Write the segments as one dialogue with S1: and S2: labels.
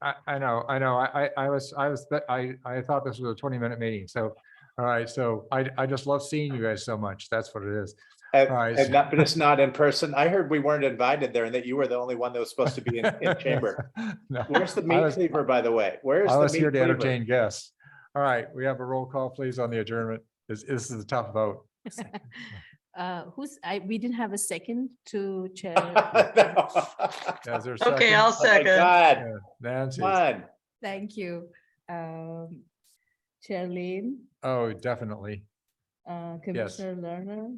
S1: I, I know, I know. I, I, I was, I was, th- I, I thought this was a twenty minute meeting. So, all right. So I, I just love seeing you guys so much. That's what it is.
S2: Have-
S1: All right,
S2: have
S1: so-
S2: not, but it's not in person. I heard we weren't invited there and that you were the only one that was supposed to be in, in chamber.
S1: No,
S2: Where's the
S1: I
S2: meat
S1: was-
S2: cleaver, by the way? Where's
S1: I
S2: the
S1: was here
S2: meat
S1: to
S2: cleaver?
S1: entertain guests. All right, we have a roll call, please, on the adjournment. This, this is a tough vote.
S3: Uh, who's, I, we didn't have a second to chair.
S2: No.
S1: Is there a
S4: Okay, I'll
S2: Oh my
S4: second.
S2: God,
S1: Nancy,
S2: come on.
S3: Thank you. Um, Chair Lane,
S1: oh, definitely.
S3: uh, Commissioner Lerner,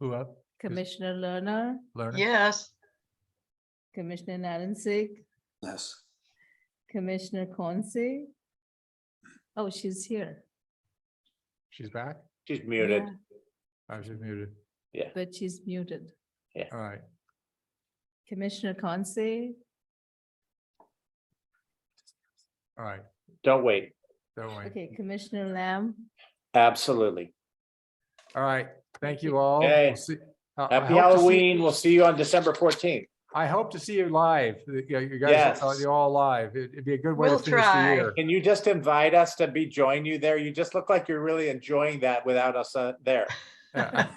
S1: Who up?
S3: Commissioner Lerner,
S1: Lerner?
S4: Yes,
S3: Commissioner Narensec,
S5: Yes.
S3: Commissioner Conce. Oh, she's here,
S1: She's back?
S2: She's muted.
S3: Yeah.
S1: Oh, she's muted.
S3: but she's muted.
S1: All right.
S3: Commissioner Conce,
S1: All right.
S2: Don't wait.
S1: Don't worry.
S3: okay, Commissioner Lamb,
S2: Absolutely.
S1: All right. Thank you all. We'll
S2: Okay.
S1: see- I- I hope to
S2: Happy
S1: see-
S2: Halloween. We'll see you on December fourteenth.
S1: I hope to see you live. You you guys,
S2: Yes.
S1: you're all live. It- It'd be a good way to
S4: We'll
S1: finish the
S4: try.
S1: year.
S2: Can you just invite us to be, join you there? You just look like you're really enjoying that without us uh, there.
S1: Yeah.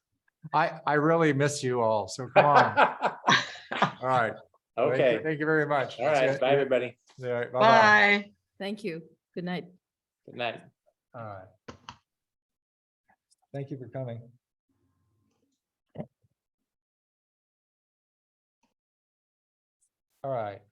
S1: I, I really miss you all. So come on.
S2: Okay.
S1: All right. Thank you- Thank you very much.
S2: All right. Bye, everybody.
S1: All right. Bye-bye.
S4: bye.
S3: thank you, good night.
S2: Good night.
S1: All right. Thank you for coming. All right.